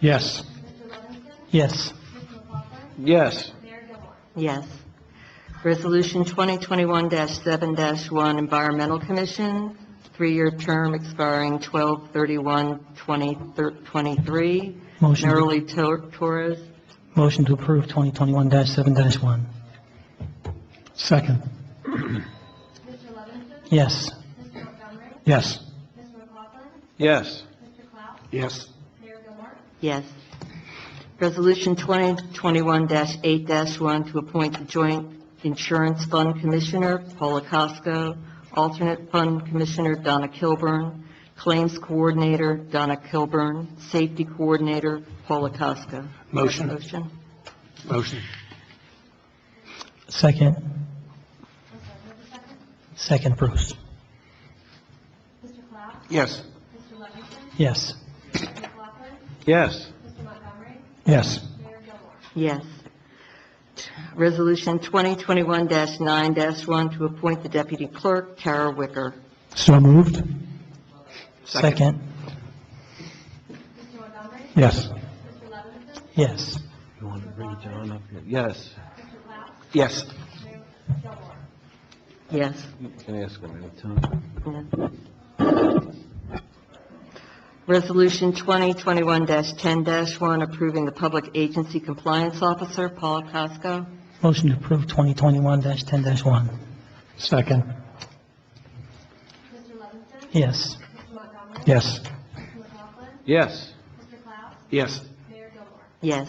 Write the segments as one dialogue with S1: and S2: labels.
S1: Yes. Yes.
S2: Yes.
S3: Yes. Resolution 2021-7-1 Environmental Commission, three-year term expiring 12/31/2023.
S1: Motion.
S3: Nerly Tor- Torres.
S1: Motion to approve 2021-7-1. Second. Yes. Yes.
S2: Yes.
S1: Yes.
S3: Yes. Resolution 2021-8-1 to appoint the Joint Insurance Fund Commissioner, Paula Costco, Alternate Fund Commissioner, Donna Kilburn, Claims Coordinator, Donna Kilburn, Safety Coordinator, Paula Costco.
S2: Motion.
S3: Motion.
S2: Motion.
S1: Second. Second, Bruce.
S2: Yes.
S1: Yes.
S2: Yes.
S1: Yes.
S3: Yes. Resolution 2021-9-1 to appoint the deputy clerk, Tara Wicker.
S1: So moved. Second. Yes. Yes.
S2: You want to bring it down up here? Yes. Yes.
S3: Yes.
S2: You can ask him anytime.
S3: Resolution 2021-10-1, approving the Public Agency Compliance Officer, Paula Costco.
S1: Motion to approve 2021-10-1. Second. Yes. Yes.
S2: Yes. Yes.
S3: Yes.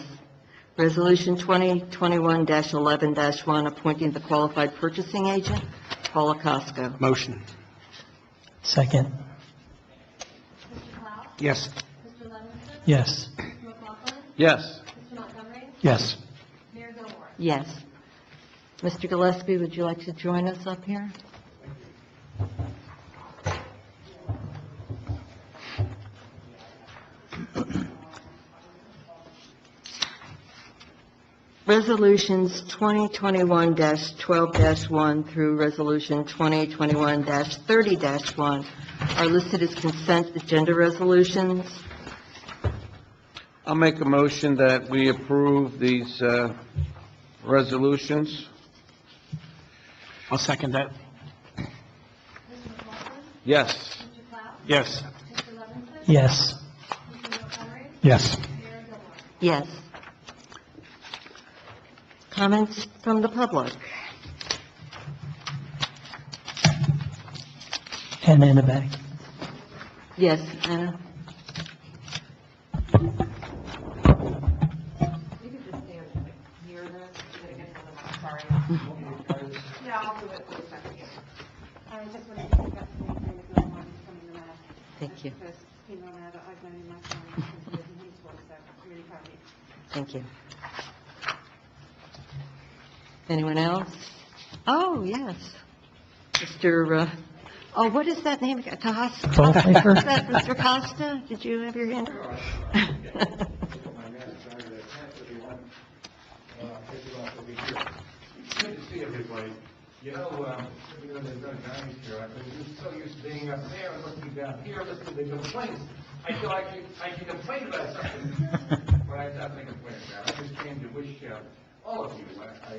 S3: Resolution 2021-11-1, appointing the Qualified Purchasing Agent, Paula Costco.
S2: Motion.
S1: Second.
S2: Yes.
S1: Yes.
S2: Yes.
S1: Yes.
S3: Yes. Mr. Gillespie, would you like to join us up here? Resolutions 2021-12-1 through Resolution 2021-30-1 are listed as consent agenda resolutions.
S2: I'll make a motion that we approve these uh, resolutions. I'll second that. Yes. Yes.
S1: Yes. Yes.
S3: Yes. Comments from the public?
S1: And in the back.
S3: Yes, uh, Anna?
S4: I just wanted to pick up the thing with my mom coming to Mass,
S3: Thank you,
S4: because he known that I've known him my son since he was in high school, so I'm really proud of you.
S3: thank you. Anyone else? Oh, yes. Mr., uh, oh, what is that name? Costa?
S1: Bonhoeffer?
S3: Is that Mr. Costa? Did you have your hand? up?
S5: Good to see everybody. You know, um, we know there's no dining here, I've been so used to being up there and looking down here, listening to complaints. I feel I can, I can complain about something, but I have nothing to complain about. I just came to wish, uh, all of you, I, I, a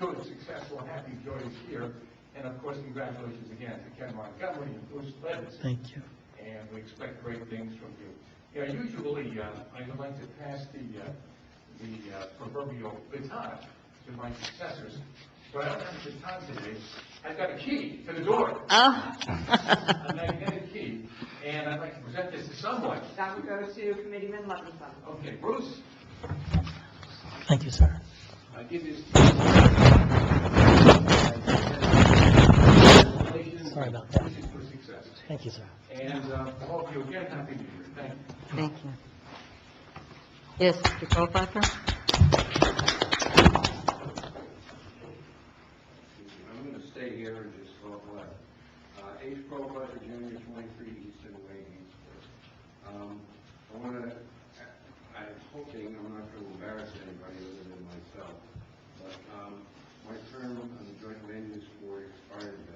S5: good, successful, happy, joyous year. And of uh, course, congratulations again to Ken Montgomery and Bruce Levinson
S1: Thank you.
S5: and we expect great things from you. Yeah, usually, uh, I would like to pass the, uh, the uh, proverbial baton to my successors, but I don't have a baton today. I've got a key to the door,
S3: Oh,
S5: a magnetic key, and I'd like to present this to someone.
S4: That would go to Committeeman Levinson.
S5: Okay, Bruce,
S1: Thank you, sir.
S5: I give this to you.
S1: Sorry about that.
S5: Wishes for success.
S1: Thank you, sir.
S5: And uh, to all of you again, happy New Year. Thank you.
S3: thank you. Yes, Mr. Goldwasser?
S6: I'm gonna stay here and just talk left. Uh, H. Professor Junior, twenty-three Easton Way, Eastport. Um, I wanna, I'm hoping I'm not gonna embarrass anybody other than myself, but, um, my term on the Joint Land Use Board expired